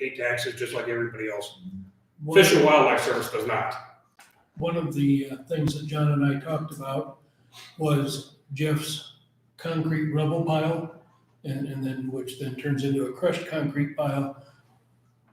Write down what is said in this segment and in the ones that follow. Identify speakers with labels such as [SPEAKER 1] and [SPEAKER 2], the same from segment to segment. [SPEAKER 1] They pay taxes just like everybody else.
[SPEAKER 2] One-
[SPEAKER 1] Fish and Wildlife Service does not.
[SPEAKER 2] One of the uh, things that John and I talked about was Jeff's concrete rubble pile and, and then, which then turns into a crushed concrete pile.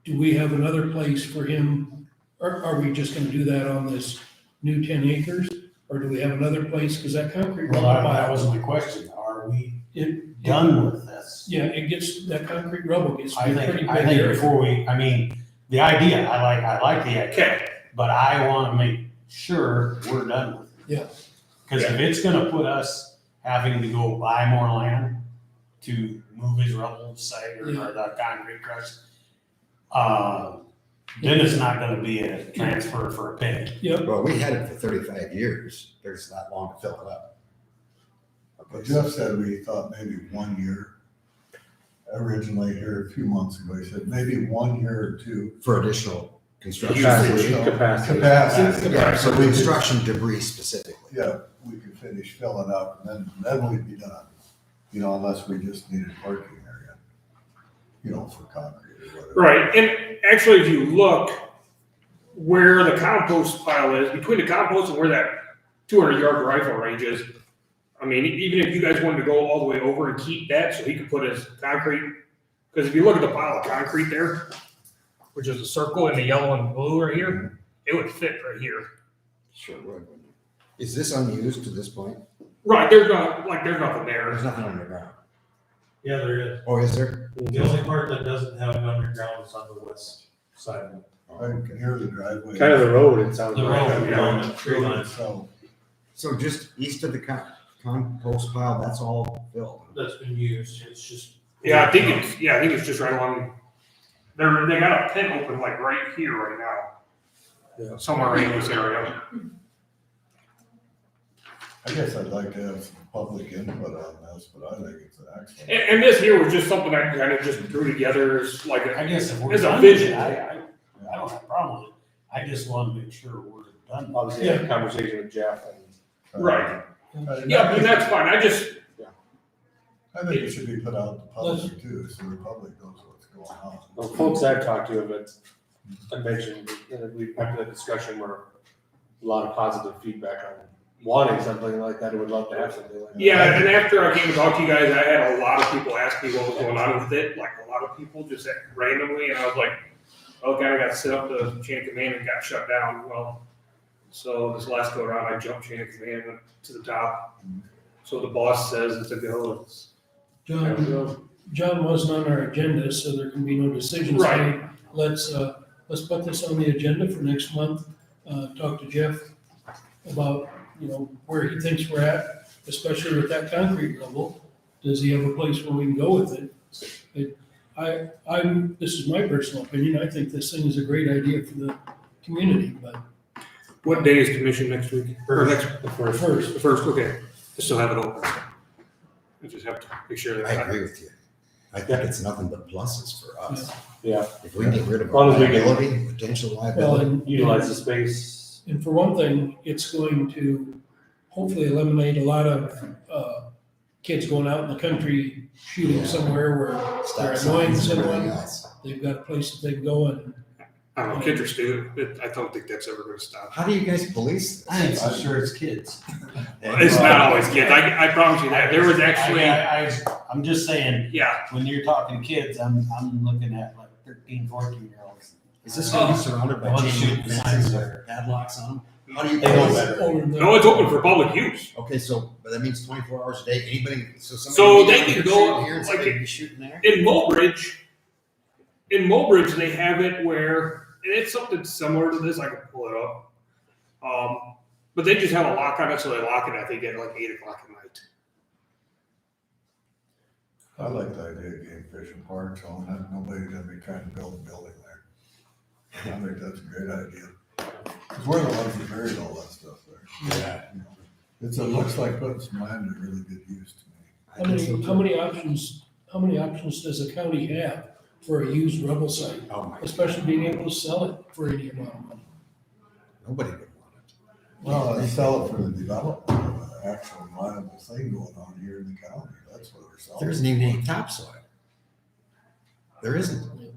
[SPEAKER 2] Do we have another place for him? Or are we just gonna do that on this new ten acres? Or do we have another place? Cause that concrete
[SPEAKER 3] Well,
[SPEAKER 2] rubble
[SPEAKER 3] that that
[SPEAKER 2] pile,
[SPEAKER 3] was my question. Are we
[SPEAKER 2] It-
[SPEAKER 3] done with this?
[SPEAKER 2] yeah, it gets, that concrete rubble gets to
[SPEAKER 3] I
[SPEAKER 2] be a pretty
[SPEAKER 3] think,
[SPEAKER 2] big
[SPEAKER 3] I think
[SPEAKER 2] area.
[SPEAKER 3] before we, I mean, the idea, I like, I like the idea,
[SPEAKER 1] Okay,
[SPEAKER 3] but I wanna make sure we're done with it.
[SPEAKER 2] Yeah.
[SPEAKER 3] Cause if it's gonna put us having to go buy more land to move his rubble site or
[SPEAKER 2] Yeah.
[SPEAKER 3] or the concrete crush, uh, then it's not gonna be a transfer for a penny.
[SPEAKER 4] Well, we had it for thirty-five years. There's not long to fill it up.
[SPEAKER 5] But Jeff said we thought maybe one year. Originally here a few months ago, he said maybe one year or two.
[SPEAKER 4] For additional construction.
[SPEAKER 5] Capacity.
[SPEAKER 6] Capacity.
[SPEAKER 5] Capacity.
[SPEAKER 4] Yeah, so
[SPEAKER 5] So we could,
[SPEAKER 4] construction debris specifically.
[SPEAKER 5] yeah, we could finish filling up and then, then we'd be done. You know, unless we just needed working area. You know, for concrete or whatever.
[SPEAKER 1] right. And actually, if you look where the compost pile is, between the compost and where that 200 yard rifle range is, I mean, even if you guys wanted to go all the way over and keep that so he could put his concrete, because if you look at the pile of concrete there, which is a circle in the yellow and blue right here, it would fit right here.
[SPEAKER 4] Sure would. wouldn't it? Is this unused to this point?
[SPEAKER 1] Right, there's not like there's nothing there.
[SPEAKER 4] There's nothing underground.
[SPEAKER 7] Yeah, there is.
[SPEAKER 4] Oh, is there?
[SPEAKER 7] The only part that doesn't have an underground is on the west side.
[SPEAKER 4] Oh,
[SPEAKER 5] Right
[SPEAKER 4] okay.
[SPEAKER 5] near the driveway.
[SPEAKER 6] Kind of the road, it sounds
[SPEAKER 7] The
[SPEAKER 6] like.
[SPEAKER 7] road, on the tree line,
[SPEAKER 5] So,
[SPEAKER 4] So just east of the con- compost pile, that's all filled.
[SPEAKER 7] that's been used, it's just.
[SPEAKER 1] Yeah, I think it's yeah, I think it's just right along. They're they got a pit open like right here right now.
[SPEAKER 6] Yeah.
[SPEAKER 1] Somewhere in this area.
[SPEAKER 5] I guess I'd like to have some public input on this, but I think it's an excellent.
[SPEAKER 1] And, and this here was just something I kind of just threw together as like a,
[SPEAKER 3] I guess if we're
[SPEAKER 1] It's a
[SPEAKER 3] done with
[SPEAKER 1] vision.
[SPEAKER 3] it, I, I, I don't have a problem with it. I just wanna make sure we're done. with it.
[SPEAKER 6] Obviously, I had a conversation with Jeff and
[SPEAKER 1] right.
[SPEAKER 5] Uh,
[SPEAKER 1] Yeah, but that's fine. I just
[SPEAKER 5] I think it should be put out to public too, so the public knows what's going on.
[SPEAKER 6] the folks I've talked to have it. I mentioned, that we've had that discussion where a lot of positive feedback on wanting something like that, and would love to have something like that.
[SPEAKER 1] yeah, and after I came and talked to you guys, I had a lot of people ask me what was going on with it. Like a lot of people just randomly, and I was like, "Oh God, I got set up the chain of command and got shut down." Well, so this last go around, I jumped chain of command went to the top. So the boss says it's a go. It's,
[SPEAKER 6] There we
[SPEAKER 2] John,
[SPEAKER 6] go.
[SPEAKER 2] John wasn't on our agenda, so there can be no decisions.
[SPEAKER 1] Right.
[SPEAKER 2] made. Let's, uh, let's put this on the agenda for next month, uh, talk to Jeff about, you know, where he thinks we're at, especially with that concrete level. Does he have a place where we can go with it? it? I, I'm, this is my personal opinion, I think this thing is a great idea for the community, but
[SPEAKER 1] What day is commission next week? Or next,
[SPEAKER 6] The first,
[SPEAKER 2] first,
[SPEAKER 1] the first, okay. I still have it open. I just have to make sure
[SPEAKER 4] I
[SPEAKER 1] that.
[SPEAKER 4] agree with you. I think it's nothing but pluses for us.
[SPEAKER 6] Yeah.
[SPEAKER 4] If we get rid of
[SPEAKER 6] As long as we can-
[SPEAKER 4] liability, potential
[SPEAKER 2] well,
[SPEAKER 4] liability.
[SPEAKER 2] and.
[SPEAKER 6] utilize the space.
[SPEAKER 2] And for one thing, it's going to hopefully eliminate a lot of, uh, kids going out in the country shooting somewhere where
[SPEAKER 4] stop
[SPEAKER 2] they're
[SPEAKER 4] signs
[SPEAKER 2] annoying
[SPEAKER 4] and everything
[SPEAKER 2] someone.
[SPEAKER 4] else.
[SPEAKER 2] they've got a place that they can go and,
[SPEAKER 1] I don't know, kids are stupid. It- I don't think that's ever gonna stop.
[SPEAKER 4] How do you guys police this?
[SPEAKER 3] I think so, sure it's kids.
[SPEAKER 1] It's not always kids. I, I promise you that. There was actually,
[SPEAKER 3] I, I, I'm just saying,
[SPEAKER 1] yeah,
[SPEAKER 3] when you're talking kids, I'm, I'm looking at like thirteen, fourteen year olds.
[SPEAKER 4] Is this gonna be surrounded by
[SPEAKER 3] Oh.
[SPEAKER 4] chain link fences
[SPEAKER 3] Signs.
[SPEAKER 4] with padlocks on them? How do you?
[SPEAKER 3] They know
[SPEAKER 4] police
[SPEAKER 3] better.
[SPEAKER 4] it?
[SPEAKER 2] or the-
[SPEAKER 1] no, it's open for public use.
[SPEAKER 4] Okay, so, but that means twenty-four hours a day, anybody, so somebody.
[SPEAKER 1] So
[SPEAKER 4] can be
[SPEAKER 1] they can
[SPEAKER 4] out here
[SPEAKER 1] go
[SPEAKER 4] shooting
[SPEAKER 1] up,
[SPEAKER 4] here and
[SPEAKER 1] like,
[SPEAKER 4] somebody can be Shooting there?
[SPEAKER 1] In Mulbridge, in Mulbridge, they have it where, and it's something similar to this. I can pull it up. Um, but they just have a lock on it, so they lock it, I think, at like eight o'clock at night.
[SPEAKER 5] I like the idea of game fishing parks, on that, nobody's gonna be trying to build a building there. I think that's a great idea. Cause we're the ones that buried all that stuff there. Yeah. It's, it looks like putting some land to really good use to me.
[SPEAKER 4] I
[SPEAKER 2] how
[SPEAKER 4] think so
[SPEAKER 2] many,
[SPEAKER 4] too.
[SPEAKER 2] how many options, how many options does a county have for a used rubble site?
[SPEAKER 4] Oh my,
[SPEAKER 2] Especially being able to sell it for any amount of money.
[SPEAKER 4] nobody would want it.
[SPEAKER 5] Well, they sell it for the development of an actual viable thing going on here in the county, that's what we're selling.
[SPEAKER 4] There isn't even any topsoil. There isn't.